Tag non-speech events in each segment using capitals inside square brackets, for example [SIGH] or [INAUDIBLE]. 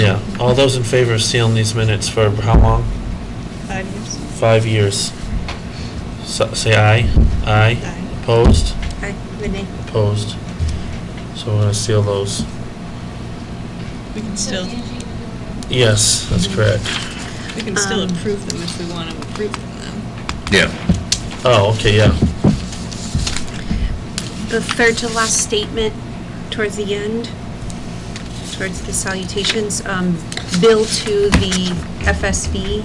Yeah, all those in favor of sealing these minutes for how long? Five years. Five years. So- Say aye. Aye. Aye. Opposed? Aye. Renee? Opposed. So we're gonna seal those. We can So still, Angie, Yes, that's correct. we can still Um, approve them if we want to approve them, Yeah. Oh, okay, yeah. The third to last statement towards the end, towards the salutations, um, bill to the FSV,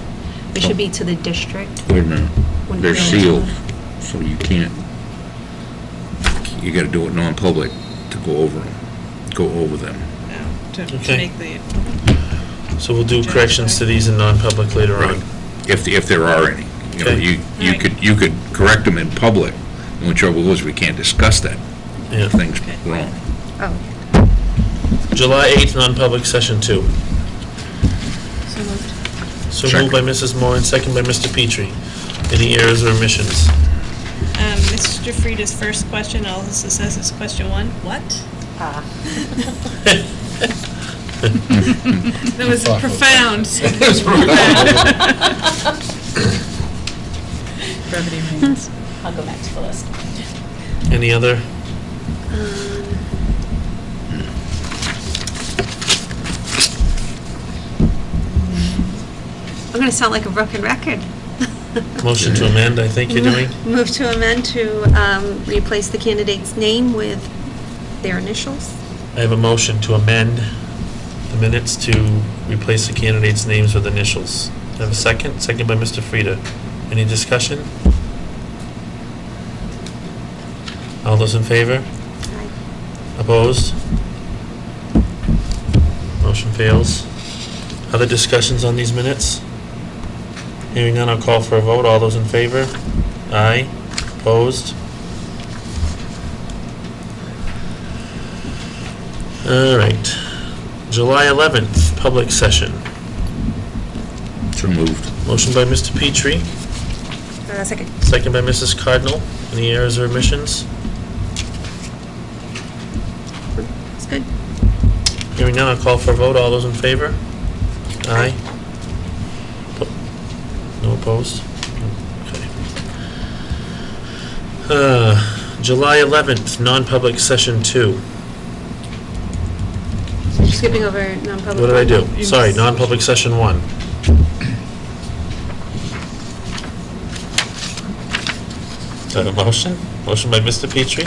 it should be to the district. Wait a minute. Wouldn't Mm-hmm. They're be able to- sealed, so you can't, you gotta do it non-public to go over them, go over them. now, to Okay. to make the, So we'll do corrections to these in non-public later on. If, if there are any. You know, Okay. you, you could, you could correct them in public. The only trouble is we can't discuss that. Yeah. Thing's wrong. Oh, July 8th, non-public session two. so moved. So moved by Mrs. Moore and second by Mr. Petrie. Any errors or omissions? [LAUGHS] Um, Mr. Frieda's first question, all this says is question one, what? That was [LAUGHS] profound. Brevity reigns. I'll go back to the list. Any other? Um, I'm going to sound like a broken record. Motion to amend, I think you're doing? [LAUGHS] Move to amend to um, replace the candidate's name with their initials. I have a motion to amend the minutes to replace the candidates' names with initials. I have a second, second by Mr. Frida. Any discussion? All those in favor? Aye. Opposed? Motion fails. Other discussions on these minutes? Hearing none, I'll call for a vote. All those in favor? Aye. Opposed? All right. July 11th, public session. So moved. Motion by Mr. Petrie, Uh, Second. second by Mrs. Cardinal. Any errors or omissions? It's good. Hearing none, I'll call for a vote. All those in favor? Aye. Po- No opposed? Okay. Uh, July 11th, non-public session two. So you're Skipping over non-public. What did I do? You Sorry, missed- non-public session one. Is that a motion? Motion by Mr. Petrie,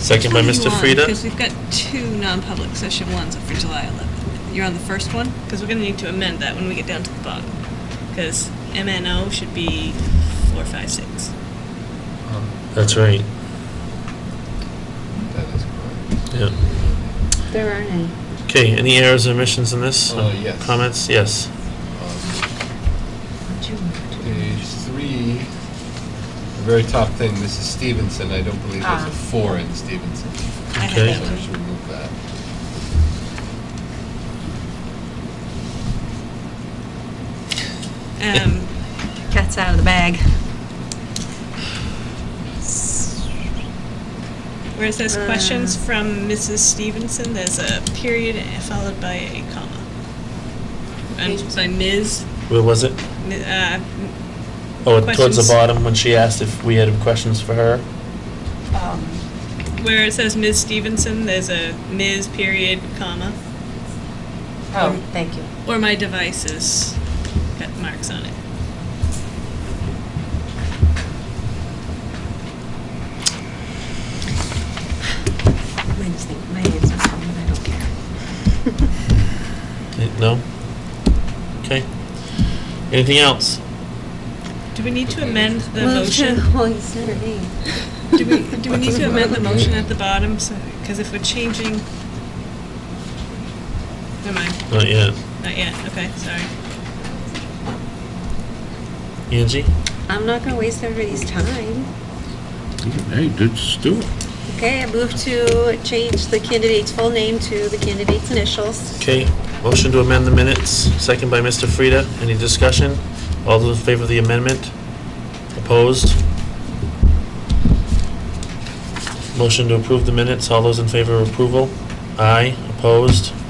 second by Mr. Frida. Because we've got two non-public session ones for July 11th. You're on the first one, because we're going to need to amend that when we get down to the bottom. Because MNO should be four, five, [LAUGHS] six. That's right, That is correct. yeah. There aren't any. Okay, any errors or omissions in this? Uh, yes. Comments? Yes. Um, Page three, the very top thing, Mrs. Stevenson, I don't believe there's Ah. a four in Stevenson. I had Okay. So that we one. should remove that. Um, Cat's out of the bag. Where it says Mm. Uh. questions from Mrs. Stevenson, there's a period followed by a comma. And by Ms., Where was it? Mi- uh, Oh, towards the Questions? bottom, when she asked if we had questions for her? Um, where it says Ms. Stevenson, there's a Ms. period comma. Um, Oh, thank you. Or my devices got marks on it. My name's my name's not coming, I don't care. Eh, No? Okay. Anything else? Do we need to amend the Move to- [LAUGHS] motion? [LAUGHS] Well, you said her name. Do we, do we need to amend the motion at the bottom? Because if we're changing... Never mind, Not yet. not yet, okay, sorry. Angie? I'm not going to waste everybody's time. Hey, just do it. Okay, I move to change the candidate's full name to the candidate's initials. Okay. Motion to amend the minutes, second by Mr. Frida. Any discussion? All those in favor of the amendment? Opposed? Motion to approve the minutes. All those in favor of approval? Aye. Opposed?